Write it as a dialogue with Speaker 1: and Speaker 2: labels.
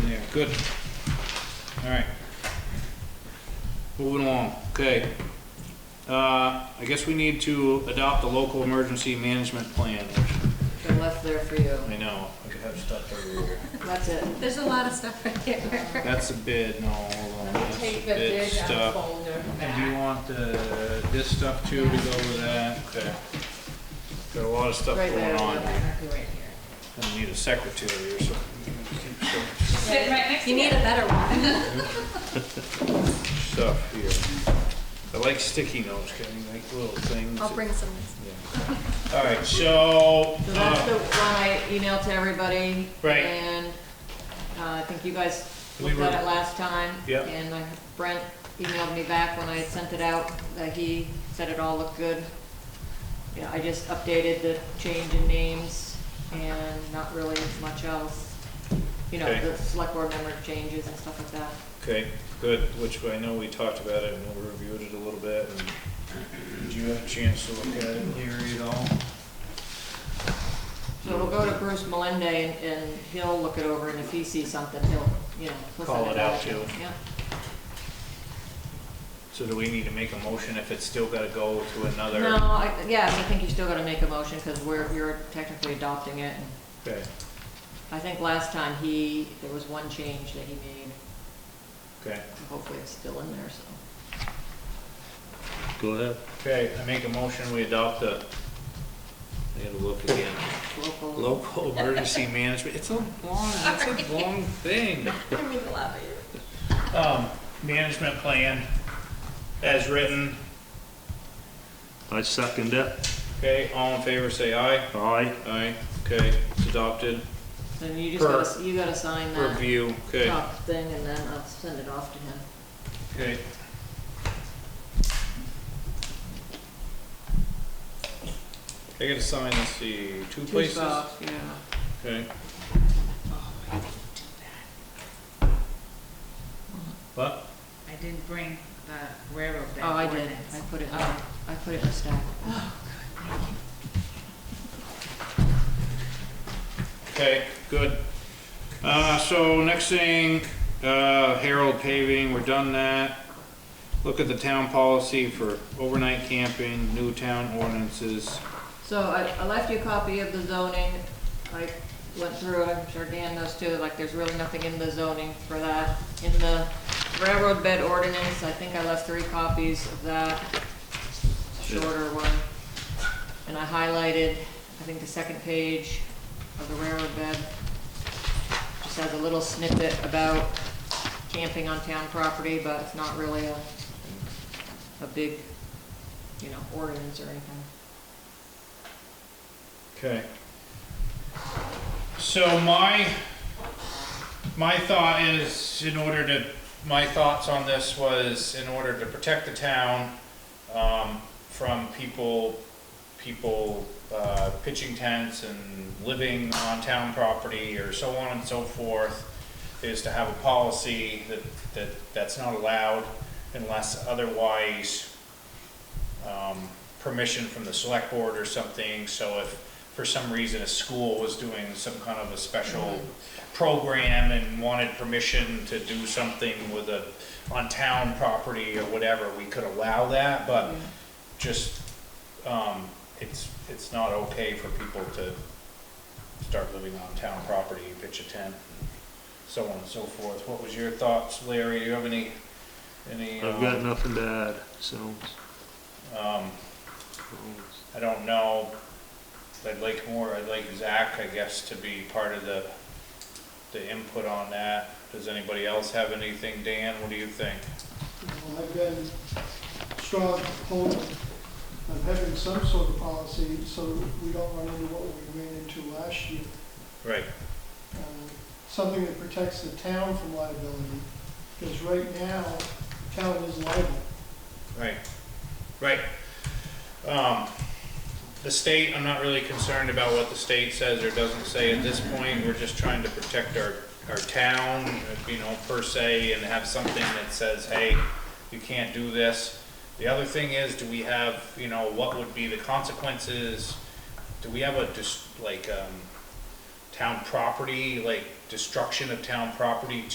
Speaker 1: Good. All right. Moving along, okay. Uh, I guess we need to adopt the local emergency management plan, which
Speaker 2: They're left there for you.
Speaker 1: I know, I could have stuff everywhere.
Speaker 2: That's it.
Speaker 3: There's a lot of stuff right there.
Speaker 1: That's a bid, no, hold on, that's
Speaker 4: Take the
Speaker 1: bid
Speaker 4: bid out
Speaker 1: stuff.
Speaker 4: folder
Speaker 1: And do you
Speaker 4: back.
Speaker 1: want the, this stuff too to go with that? Okay. Got a lot of stuff
Speaker 2: Right
Speaker 1: going
Speaker 2: there.
Speaker 1: on here.
Speaker 4: Right here.
Speaker 1: I need a secretary or something.
Speaker 4: Sit right next to
Speaker 3: You need
Speaker 4: it.
Speaker 3: a better one.
Speaker 1: stuff here. I like sticky notes, kind of like little things.
Speaker 3: I'll bring some. next
Speaker 1: All right, so,
Speaker 2: So that's
Speaker 1: uh,
Speaker 2: the one I emailed to everybody.
Speaker 1: Right.
Speaker 2: And uh, I think you guys
Speaker 1: We
Speaker 2: looked
Speaker 1: were-
Speaker 2: at it last time.
Speaker 1: Yep.
Speaker 2: And I- Brent emailed me back when I had sent it out, that he said it all looked good. Yeah, I just updated the change in names and not really much else. You know,
Speaker 1: Okay.
Speaker 2: the select board member changes and stuff like that.
Speaker 1: okay, good, which I know we talked about it and we reviewed it a little bit. and Did you have a chance to look at it and hear it all?
Speaker 2: So we'll go to Bruce Melende and, and he'll look it over and if he sees something, he'll, you know, he'll send
Speaker 1: Call it
Speaker 2: it
Speaker 1: out
Speaker 2: out.
Speaker 1: to you.
Speaker 2: Yeah.
Speaker 1: So do we need to make a motion if it's still gotta go to another?
Speaker 2: No, I, yeah, I think you still gotta make a motion, cause we're, you're technically adopting it. and
Speaker 1: Okay,
Speaker 2: I think last time he, there was one change that he made,
Speaker 1: okay,
Speaker 2: hopefully it's still in there, so.
Speaker 5: Go ahead.
Speaker 1: okay, I make a motion, we adopt the
Speaker 5: I gotta look again.
Speaker 2: Local,
Speaker 1: local emergency management, it's a long, it's a long thing.
Speaker 3: one. I mean, a lot of you.
Speaker 1: Um, management plan as written,
Speaker 5: I second it.
Speaker 1: okay, all in favor, say aye.
Speaker 5: Aye.
Speaker 1: Aye, okay, it's adopted,
Speaker 2: then you just gotta, you gotta sign that
Speaker 1: review, okay,
Speaker 2: top thing and then I'll send it off to him.
Speaker 1: okay. I gotta sign, let's see, two
Speaker 2: Two
Speaker 1: places,
Speaker 2: spots, Yeah.
Speaker 1: okay. What?
Speaker 4: I didn't bring the railroad
Speaker 2: Oh, I
Speaker 4: back
Speaker 2: did,
Speaker 4: ordinance.
Speaker 2: I put it, in- I put it in the stack.
Speaker 1: Okay, good. Uh, so next thing, uh, Harold paving, we're done that. Look at the town policy for overnight camping, new town ordinances.
Speaker 2: So I, I left you a copy of the zoning, I went through it, I'm sure Dan knows too, like, there's really nothing in the zoning for that. In the railroad bed ordinance, I think I left three copies of that, shorter one. And I highlighted, I think, the second page of the railroad bed. Just has a little snippet about camping on town property, but it's not really a, a big, you know, ordinance or anything.
Speaker 1: Okay. So my, my thought is, in order to, my thoughts on this was, in order to protect the town, um, from people, people, uh, pitching tents and living on town property or so on and so forth, is to have a policy that, that, that's not allowed unless otherwise um, permission from the select board or something, so if for some reason a school was doing some kind of a special program and wanted permission to do something with a, on town property or whatever, we could allow that, but just, um, it's, it's not okay for people to start living on town property, pitch a tent, so on and so forth. What was your thoughts, Larry? Do you have any, any?
Speaker 5: I've
Speaker 1: um,
Speaker 5: got nothing to add, so.
Speaker 1: Um, I don't know, I'd like more, I'd like Zach, I guess, to be part of the, the input on that. Does anybody else have anything? Dan, what do you think?
Speaker 6: Well, I've been strong opponent of having some sort of policy so we don't run into what we ran into last year.
Speaker 1: Right,
Speaker 6: Um, Something that protects the town from liability, because right now, the town is liable.
Speaker 1: right, right. Um, the state, I'm not really concerned about what the state says or doesn't say at this point. We're just trying to protect our, our town, you know, per se, and have something that says, hey, you can't do this. The other thing is, do we have, you know, what would be the consequences? Do we have a, just, like, um, town property, like destruction of town property